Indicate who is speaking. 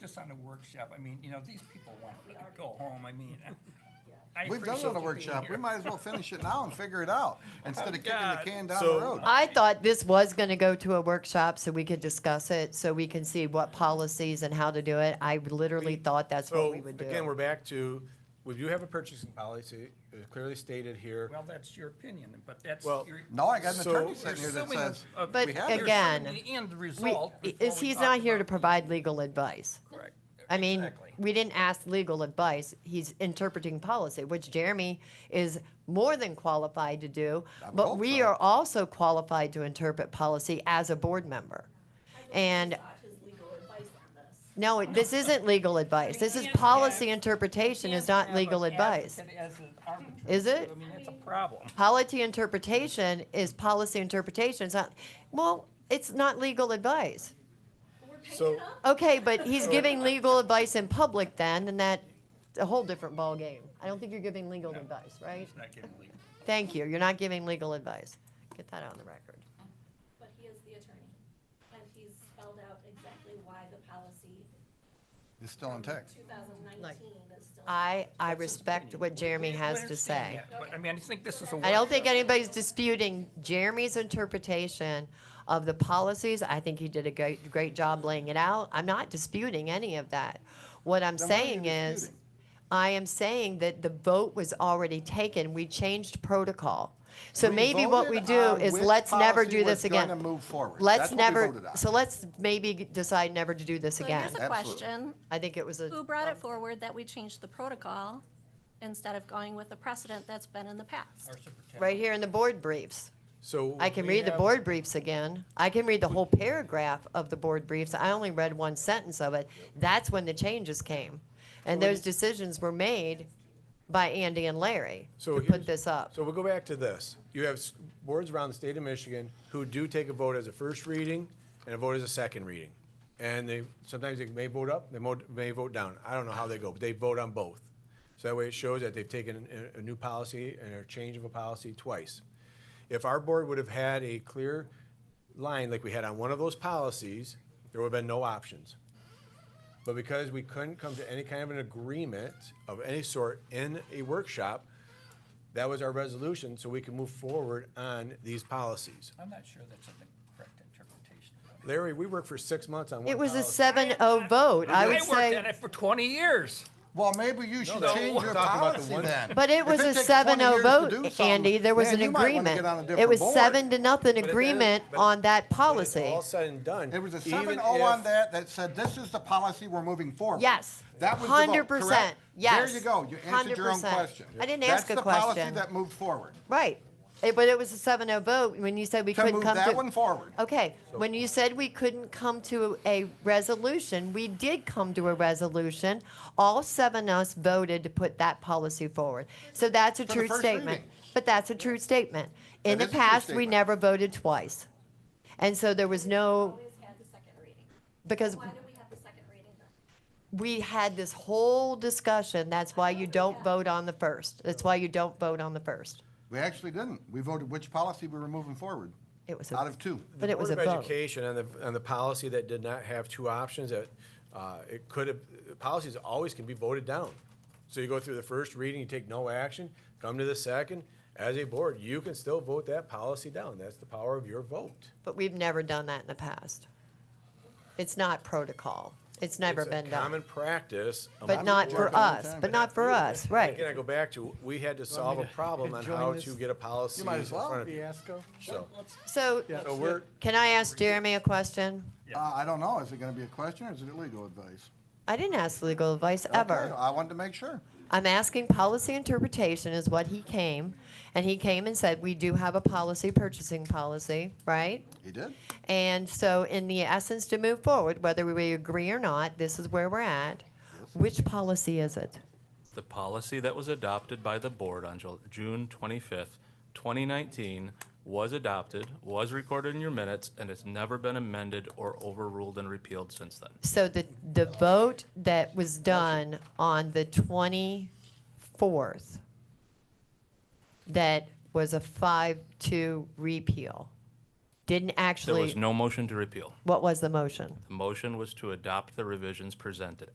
Speaker 1: just on the workshop, I mean, you know, these people want to go home, I mean. I
Speaker 2: We've done
Speaker 1: appreciate
Speaker 2: it on
Speaker 1: you
Speaker 2: a
Speaker 1: being
Speaker 2: workshop. We
Speaker 1: here.
Speaker 2: might as well finish it now and figure it out instead of kicking the
Speaker 1: God.
Speaker 2: can down
Speaker 3: So-
Speaker 2: the road.
Speaker 4: I thought this was going to go to a workshop so we could discuss it, so we can see what policies and how to do it. I literally thought that's what
Speaker 3: So,
Speaker 4: we would do.
Speaker 3: again, we're back to, we do have a purchasing policy, it's clearly stated here.
Speaker 1: Well, that's your opinion, but that's.
Speaker 3: Well,
Speaker 1: your-
Speaker 2: No, I got an
Speaker 3: So-
Speaker 2: attorney
Speaker 1: you're
Speaker 2: sitting here that
Speaker 1: assuming a-
Speaker 2: says,
Speaker 1: a-
Speaker 4: But
Speaker 2: we have it.
Speaker 1: you're
Speaker 4: again,
Speaker 1: assuming the end
Speaker 4: We-
Speaker 1: result. before
Speaker 4: Is
Speaker 1: we
Speaker 4: he's
Speaker 1: talk
Speaker 4: not here to
Speaker 1: about the-
Speaker 4: provide legal advice.
Speaker 1: Correct.
Speaker 4: I mean,
Speaker 1: Exactly.
Speaker 4: we didn't ask legal advice. He's interpreting policy, which Jeremy is more than qualified to do.
Speaker 2: would
Speaker 4: But
Speaker 2: hope
Speaker 4: we
Speaker 2: so.
Speaker 4: are also qualified to interpret policy as a board member. And
Speaker 5: Not his legal advice on this.
Speaker 4: no, it- this isn't legal advice. This is
Speaker 1: can't
Speaker 4: policy
Speaker 1: have-
Speaker 4: interpretation is
Speaker 1: Can't
Speaker 4: not
Speaker 1: have
Speaker 4: legal
Speaker 1: an
Speaker 4: advice.
Speaker 1: advocate as an arbiter.
Speaker 4: Is it?
Speaker 1: I mean, that's a problem.
Speaker 4: Policy interpretation is policy interpretation. It's not, well, it's not legal advice.
Speaker 5: We're
Speaker 3: So-
Speaker 5: picking up.
Speaker 4: Okay, but he's giving legal advice in public then, and that's a whole different ballgame. I don't think you're giving legal advice, right?
Speaker 1: It's not getting legal.
Speaker 4: Thank you. You're not giving legal advice. Get that on the record.
Speaker 5: But he is the attorney, and he's spelled out exactly why the policy
Speaker 2: It's still in text.
Speaker 5: 2019 is still.
Speaker 4: I, I respect what Jeremy
Speaker 1: We- we
Speaker 4: has to
Speaker 1: understand
Speaker 4: say.
Speaker 1: that, But I mean, I just think this is a.
Speaker 4: I don't
Speaker 1: workshop.
Speaker 4: think anybody's disputing Jeremy's interpretation of the policies. I think he did a great, great job laying it out. I'm not disputing any of that. What I'm
Speaker 2: Then what are you
Speaker 4: saying is,
Speaker 2: disputing?
Speaker 4: I am saying that the vote was already taken. We changed protocol. So
Speaker 2: We
Speaker 4: maybe what we
Speaker 2: voted
Speaker 4: do
Speaker 2: on
Speaker 4: is
Speaker 2: which
Speaker 4: let's never
Speaker 2: policy was
Speaker 4: do this again.
Speaker 2: gonna move forward. That's
Speaker 4: Let's
Speaker 2: what we
Speaker 4: never,
Speaker 2: voted on.
Speaker 4: so let's maybe g- decide never to do this
Speaker 6: So
Speaker 4: again.
Speaker 6: here's a
Speaker 2: Absolutely.
Speaker 6: question.
Speaker 4: I think it was a.
Speaker 6: Who brought it forward that we changed the protocol instead of going with the precedent that's been in the past?
Speaker 1: Our superintendent.
Speaker 4: Right here in the board briefs.
Speaker 3: So.
Speaker 4: I can
Speaker 3: we
Speaker 4: read the
Speaker 3: have-
Speaker 4: board briefs again. I can read the whole paragraph of the board briefs. I only read one sentence of it. That's when the changes came. And those decisions were made by Andy and Larry
Speaker 3: So
Speaker 4: to
Speaker 3: here's-
Speaker 4: put this up.
Speaker 3: So we'll go back to this. You have s- boards around the state of Michigan who do take a vote as a first reading and a vote as a second reading. And they, sometimes they may vote up, they mo- may vote down. I don't know how they go, but they vote on both. So that way it shows that they've taken a, a new policy and a change of a policy twice. If our board would have had a clear line like we had on one of those policies, there would have been no options. But because we couldn't come to any kind of an agreement of any sort in a workshop, that was our resolution, so we can move forward on these policies.
Speaker 1: I'm not sure that's a correct interpretation.
Speaker 3: Larry, we worked for six months on one
Speaker 4: It was
Speaker 3: policy.
Speaker 4: a 7-0 vote. I would
Speaker 1: worked
Speaker 4: say,
Speaker 1: at it for 20 years.
Speaker 2: Well, maybe you should
Speaker 1: no,
Speaker 2: change
Speaker 1: we're
Speaker 2: your
Speaker 3: talking about the
Speaker 2: policy
Speaker 3: one-
Speaker 2: then.
Speaker 4: but it
Speaker 2: If
Speaker 4: was a
Speaker 2: takes
Speaker 4: 7-0
Speaker 2: 20 years to do
Speaker 4: vote,
Speaker 2: something,
Speaker 4: Andy. There was
Speaker 2: man,
Speaker 4: an
Speaker 2: you might wanna get
Speaker 4: agreement.
Speaker 2: on a
Speaker 4: It
Speaker 2: different
Speaker 4: was
Speaker 2: board.
Speaker 4: seven to nothing
Speaker 3: But if it-
Speaker 4: agreement
Speaker 3: but-
Speaker 4: on that
Speaker 3: when it's
Speaker 4: policy.
Speaker 3: All said and done.
Speaker 2: It was a
Speaker 3: even
Speaker 2: seven oh on
Speaker 3: if-
Speaker 2: that that said, this is the policy we're moving forward.
Speaker 4: Yes.
Speaker 2: That was the vote,
Speaker 4: 100%.
Speaker 2: correct?
Speaker 4: Yes.
Speaker 2: There you go. You answered your own
Speaker 4: 100%.
Speaker 2: question.
Speaker 4: I didn't ask a
Speaker 2: That's the policy
Speaker 4: question.
Speaker 2: that moved forward.
Speaker 4: Right. Eh, But it was a 7-0 vote when you said we
Speaker 2: To
Speaker 4: couldn't
Speaker 2: move
Speaker 4: come to. Oh.
Speaker 2: that one forward.
Speaker 4: Okay, when you said we couldn't come to a resolution, we did come to a resolution. All seven of us voted to put that policy forward. So that's a
Speaker 2: For the
Speaker 4: true
Speaker 2: first
Speaker 4: statement.
Speaker 2: reading.
Speaker 4: But that's a true statement. In
Speaker 2: That is
Speaker 4: the
Speaker 2: a true
Speaker 4: past, we
Speaker 2: statement.
Speaker 4: never voted twice. And so there was no,
Speaker 5: Always had the second reading.
Speaker 4: because
Speaker 5: Why do we have the second reading then?
Speaker 4: we had this whole discussion, that's why you don't vote on the first. That's why you don't vote on the first.
Speaker 2: We actually didn't. We voted which policy we were moving forward,
Speaker 4: It was,
Speaker 2: out
Speaker 4: a
Speaker 2: of two.
Speaker 4: but it was a
Speaker 3: Board of
Speaker 4: vote.
Speaker 3: Education on the, on the policy that did not have two options, that, uh, it could have, policies always can be voted down. So you go through the first reading, you take no action, come to the second, as a board, you can still vote that policy down. That's the power of your vote.
Speaker 4: But we've never done that in the past. It's not protocol. It's never
Speaker 3: It's a
Speaker 4: been
Speaker 3: Common
Speaker 4: done.
Speaker 3: practice.
Speaker 4: But
Speaker 3: among
Speaker 4: not
Speaker 3: board
Speaker 4: for us, but not for us,
Speaker 3: Again, I
Speaker 4: right.
Speaker 3: go back to, we had to solve a problem on how to get a policy
Speaker 2: You
Speaker 3: in
Speaker 2: might as well.
Speaker 3: front of you.
Speaker 7: fiasco.
Speaker 3: So,
Speaker 4: So,
Speaker 3: so we're,
Speaker 4: can I ask Jeremy a question?
Speaker 2: Uh, I don't know. Is it gonna be a question or is it legal advice?
Speaker 4: I didn't ask legal advice
Speaker 2: Okay,
Speaker 4: ever.
Speaker 2: I wanted to make sure.
Speaker 4: I'm asking policy interpretation is what he came, and he came and said, we do have a policy, purchasing policy, right?
Speaker 2: He did.
Speaker 4: And so, in the essence, to move forward, whether we agree or not, this is where we're at. Which policy is it?
Speaker 8: The policy that was adopted by the board on Jul- June 25th, 2019, was adopted, was recorded in your minutes, and it's never been amended or overruled and repealed since then.
Speaker 4: So the, the vote that was done on the 24th, that was a 5-2 repeal, didn't
Speaker 8: There
Speaker 4: actually,
Speaker 8: was no motion to repeal.
Speaker 4: what was the motion?
Speaker 8: The motion was to adopt the revisions presented.